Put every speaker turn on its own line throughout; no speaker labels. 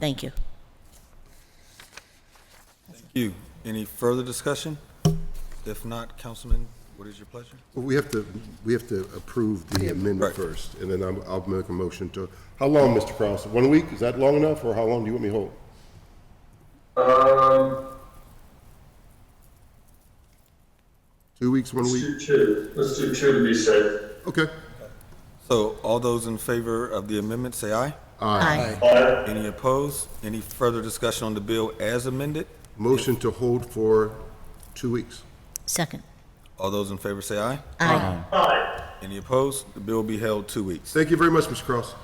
Thank you.
Thank you. Any further discussion? If not, Councilman, what is your pleasure?
Well, We have to, we have to approve the amendment
Right.
first, and then I'm- I'll make a motion to, how long, Mr. Cross? One week? Is that long enough, or how long do you want me to hold?
Um,
Two weeks, one
let's
week?
do two. Let's do two to be safe.
Okay.
So all those in favor of the amendment, say aye.
Aye.
Aye.
Any opposed? Any further discussion on the bill as amended?
Motion to hold for two weeks.
Second.
All those in favor, say aye.
Aye.
Aye.
Any opposed? The bill will be held two weeks.
Thank you very much, Mr. Cross.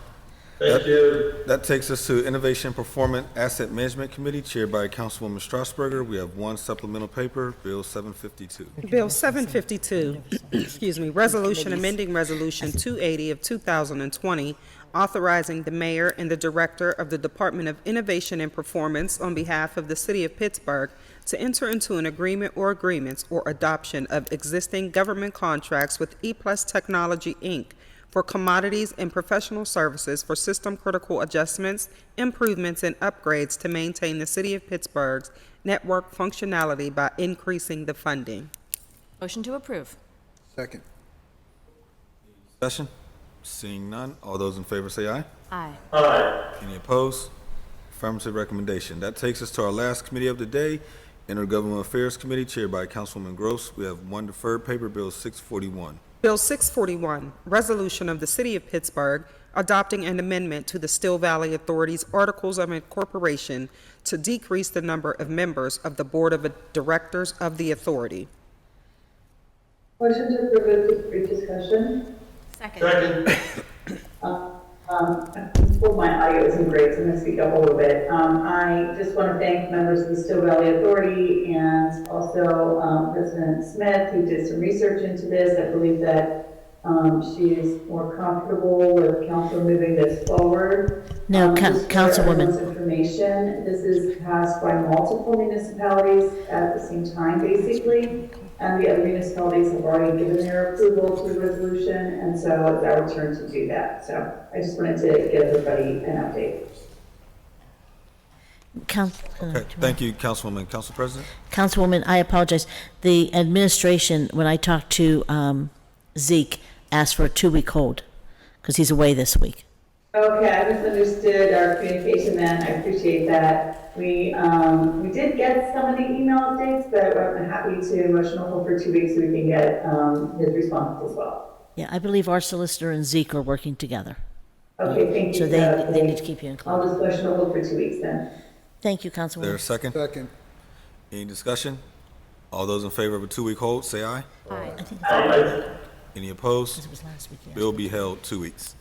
Thank you.
That takes us to Innovation Performance Asset Management Committee chaired by Councilwoman Strasburger. We have one supplemental paper, Bill 752.
Bill 752, excuse me, resolution amending Resolution 280 of 2020, authorizing the mayor and the director of the Department of Innovation and Performance on behalf of the city of Pittsburgh to enter into an agreement or agreements or adoption of existing government contracts with E-Plus Technology, Inc. for commodities and professional services for system-critical adjustments, improvements, and upgrades to maintain the city of Pittsburgh's network functionality by increasing the funding.
Motion to approve.
Second.
Discussion? Seeing none, all those in favor, say aye.
Aye.
Aye.
Any opposed? Affirmative recommendation. That takes us to our last committee of the day, Intergovernmental Affairs Committee, chaired by Councilwoman Gross. We have one deferred paper, Bill 641.
Bill 641, Resolution of the City of Pittsburgh adopting an amendment to the Still Valley Authority's Articles of Incorporation to decrease the number of members of the Board of Directors of the authority.
Motion to approve with brief discussion.
Second.
Second.
Um, well, my audio isn't great, so I'm gonna speak up a little bit. Um, I just want to thank members of the Still Valley Authority and also, um, President Smith, who did some research into this. I believe that, um, she is more comfortable with council moving this forward.
No,
Um,
Coun-
just for
Councilwoman.
everyone's information, this is passed by multiple municipalities at the same time, basically. And the other municipalities have already given their approval to the resolution, and so it's our turn to do that. So I just wanted to give everybody an update.
Coun- uh,
Okay, thank you, Councilwoman. Council President?
Councilwoman, I apologize. The administration, when I talked to um, Zeke, asked for a two-week hold because he's away this week.
Okay, I misunderstood our communication then, I appreciate that. We, um, we did get some of the email updates, but I'm happy to emotional hold for two weeks so we can get, um, his response as well.
Yeah, I believe our solicitor and Zeke are working together.
Okay, thank you.
So they-
Uh,
they need to keep you included.
I'll just emotional hold for two weeks then.
Thank you,
Is there a
Councilwoman.
second?
Second.
Any discussion? All those in favor of a two-week hold, say aye.
Aye.
I think
Aye.
Any opposed?
it was last week. yeah.
Bill be held two weeks.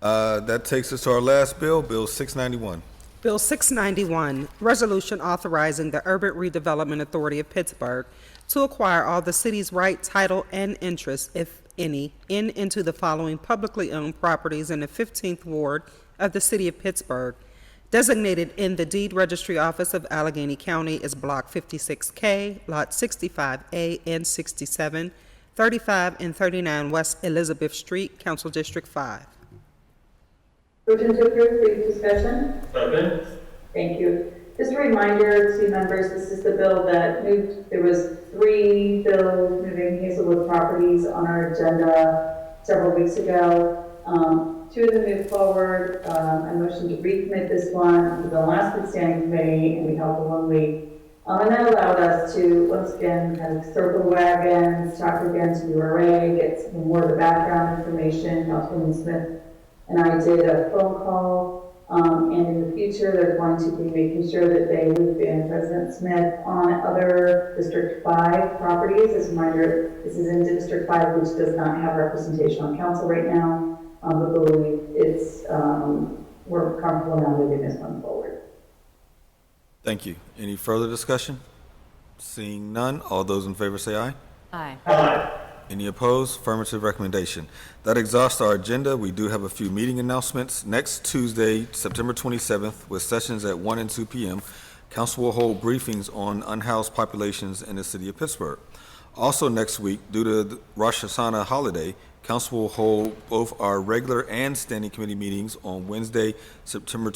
Uh, That takes us to our last bill, Bill 691.
Bill 691, Resolution Authorizing the Urban Redevelopment Authority of Pittsburgh to acquire all the city's right, title, and interest, if any, in into the following publicly owned properties in the 15th Ward of the City of Pittsburgh, designated in the Deed Registry Office of Allegheny County as Block 56K, Lot 65A and 67, 35 and 39 West Elizabeth Street, Council District 5.
Motion to approve, brief discussion.
Second.
Thank you. Just a reminder to members, this is the bill that moved, there was three bills moving Hazelwood properties on our agenda several weeks ago. Um, two of them moved forward, um, I motioned to recommit this one to the last withstanding committee, and we held the one week. Um, and that allowed us to, once again, kind of circle the wagons, talk again to URA, get some more of the background information, Councilwoman Smith and I did a phone call, um, and in the future, they're going to be making sure that they loop in President Smith on other District Five properties. As a reminder, this is in District Five, which does not have representation on council right now, um, but believe it's, um, we're comfortable now moving this one forward.
Thank you. Any further discussion? Seeing none, all those in favor, say aye.
Aye.
Any opposed? Affirmative recommendation. That exhausts our agenda. We do have a few meeting announcements. Next Tuesday, September 27th, with sessions at 1 and 2 p.m., council will hold briefings on unhoused populations in the city of Pittsburgh. Also next week, due to the Rosh Hashanah holiday, council will hold both our regular and standing committee meetings on Wednesday, September